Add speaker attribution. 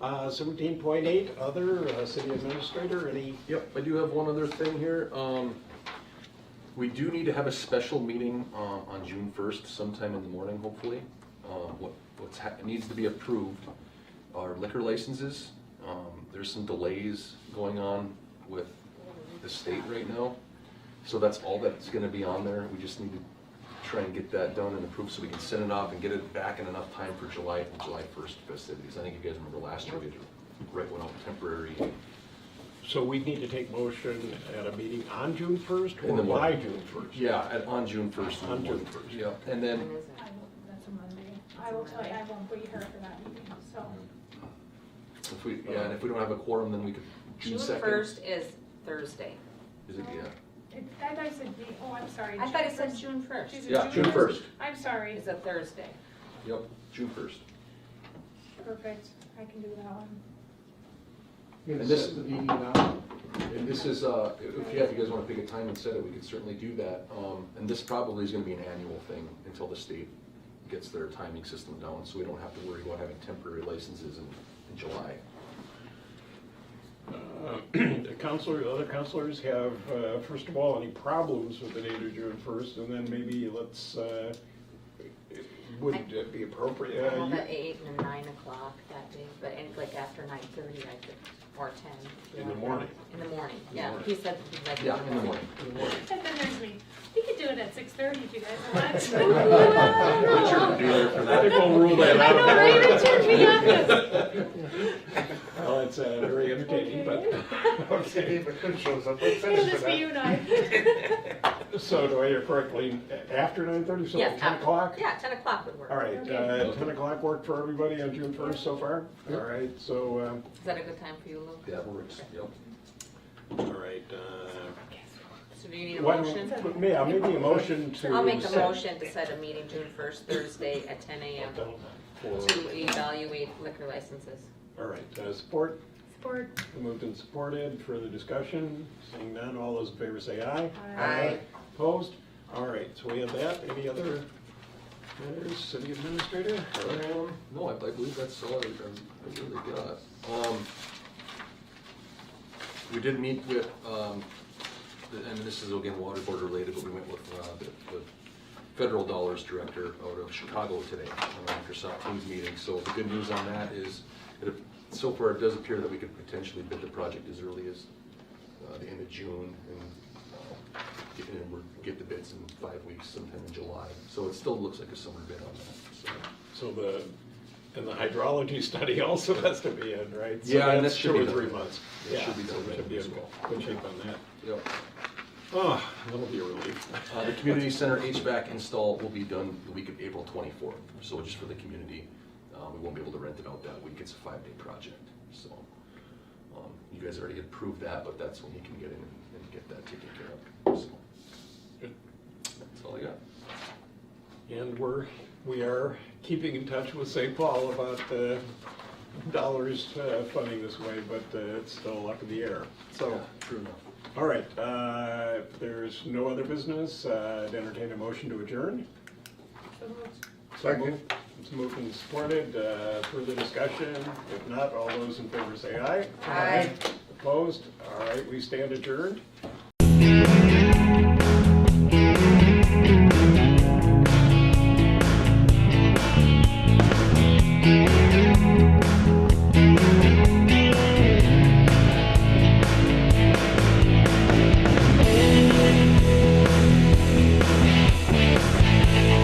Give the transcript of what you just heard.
Speaker 1: Uh, seventeen point eight, other, uh, city administrator, any,
Speaker 2: Yep, I do have one other thing here. Um, we do need to have a special meeting, um, on June first sometime in the morning, hopefully. Uh, what, what's hap, needs to be approved are liquor licenses. Um, there's some delays going on with the state right now. So that's all that's gonna be on there. We just need to try and get that done and approved so we can send it off and get it back in enough time for July, July first festivities. I think you guys remember last year we had to write one out temporary
Speaker 1: so we need to take motion at a meeting on June first
Speaker 2: In
Speaker 1: or
Speaker 2: the
Speaker 1: by
Speaker 2: morning.
Speaker 1: June first?
Speaker 2: Yeah, at, on June first.
Speaker 1: On June 1st.
Speaker 2: Yeah, and
Speaker 3: When
Speaker 2: then,
Speaker 3: is it?
Speaker 4: I will, that's a Monday. I will tell you, I won't be here for that meeting, so.
Speaker 2: Mm-hmm. if we, yeah, and if we don't have a quorum, then we could, June
Speaker 3: June
Speaker 2: second.
Speaker 3: first is Thursday.
Speaker 2: Is it, yeah,
Speaker 4: It- I thought you said, May- oh, I'm sorry.
Speaker 3: I thought it said
Speaker 4: first.
Speaker 3: June first.
Speaker 4: Is it
Speaker 2: yeah, June first,
Speaker 4: I'm sorry.
Speaker 3: It's a Thursday.
Speaker 2: yep, June first.
Speaker 4: Perfect. I can do that one.
Speaker 2: And this, and this is, uh, if, yeah, if you guys wanna pick a time and set it, we could certainly do that. Um, and this probably is gonna be an annual thing until the state gets their timing system down, so we don't have to worry about having temporary licenses in, in July.
Speaker 1: Uh, The counselor, other counselors have, uh, first of all, any problems with the date of June first, and then maybe let's, uh, would it be appropriate? uh,
Speaker 3: I'm
Speaker 1: you-
Speaker 3: at eight and nine o'clock that day, but and like after nine thirty, I could, or ten.
Speaker 1: In the morning.
Speaker 3: In the morning,
Speaker 2: In the
Speaker 3: yeah.
Speaker 2: morning.
Speaker 3: He said he'd like.
Speaker 2: Yeah, in the morning.
Speaker 4: And then there's me. We could do it at six thirty if you guys want.
Speaker 2: Richard would be there for
Speaker 1: I think
Speaker 2: that.
Speaker 1: we'll rule that
Speaker 4: I
Speaker 1: out.
Speaker 4: know, right, Richard? We got this.
Speaker 1: Well, it's, uh, very entertaining, but, okay,
Speaker 4: It'll just be you and I.
Speaker 1: so do I hear correctly, after nine thirty, so
Speaker 3: Yes,
Speaker 1: ten
Speaker 3: after-
Speaker 1: o'clock?
Speaker 3: Yeah, ten o'clock would work.
Speaker 1: All right, uh,
Speaker 4: Okay.
Speaker 1: ten o'clock work for everybody on June first so far? All right, so, um,
Speaker 3: Is that a good time for you, Lou?
Speaker 2: That works, yep.
Speaker 1: all right, uh,
Speaker 3: So do you need a
Speaker 1: why
Speaker 3: motion?
Speaker 1: don't, yeah, maybe a motion to.
Speaker 3: I'll make a
Speaker 1: set-
Speaker 3: motion to set a meeting June first, Thursday at ten AM
Speaker 1: For-
Speaker 3: to evaluate liquor licenses.
Speaker 1: All right, uh, support,
Speaker 4: Support.
Speaker 1: moved and supported, further discussion, seeing none, all those in favor say aye.
Speaker 3: Aye.
Speaker 1: Opposed? All right, so we have that, any other matters, city administrator?
Speaker 2: Um, No, I, I believe that's all I, I really got. Um, we did meet with, um, the- and this is again water board related, but we went with, uh, the, the federal dollars director out of Chicago today on our Microsoft Teams meeting, so the good news on that is, it, so far, it does appear that we could potentially bid the project as early as, uh, the end of June, and, uh, get, and we're, get the bids in five weeks sometime in July, so it still looks like a summer bid on that, so.
Speaker 1: So the, and the hydrology study also has to be in, right? So
Speaker 2: Yeah, and
Speaker 1: that's
Speaker 2: that should be
Speaker 1: Two or
Speaker 2: done.
Speaker 1: three months.
Speaker 2: That
Speaker 1: Yeah,
Speaker 2: should be
Speaker 1: so
Speaker 2: done
Speaker 1: we Should be
Speaker 2: as
Speaker 1: in
Speaker 2: well.
Speaker 1: good shape on that.
Speaker 2: Yep.
Speaker 1: Oh, that'll be a relief.
Speaker 2: Uh, the community center HVAC install will be done the week of April twenty-fourth, so just for the community. Uh, we won't be able to rent it out that week, it's a five-day project, so. Um, you guys already approved that, but that's when you can get in and get that taken care of, so. That's all I got.
Speaker 1: And we're, we are keeping in touch with St. Paul about the dollars uh, funding this way, but uh, it's still up in the air. So,
Speaker 2: True enough.
Speaker 1: all right, uh, if there's no other business, uh, I'd entertain a motion to adjourn.
Speaker 4: So moved.
Speaker 1: Second. It's moved and supported, Uh, further discussion, if not, all those in favor say aye.
Speaker 3: Aye.
Speaker 1: Opposed, all right, we stand adjourned.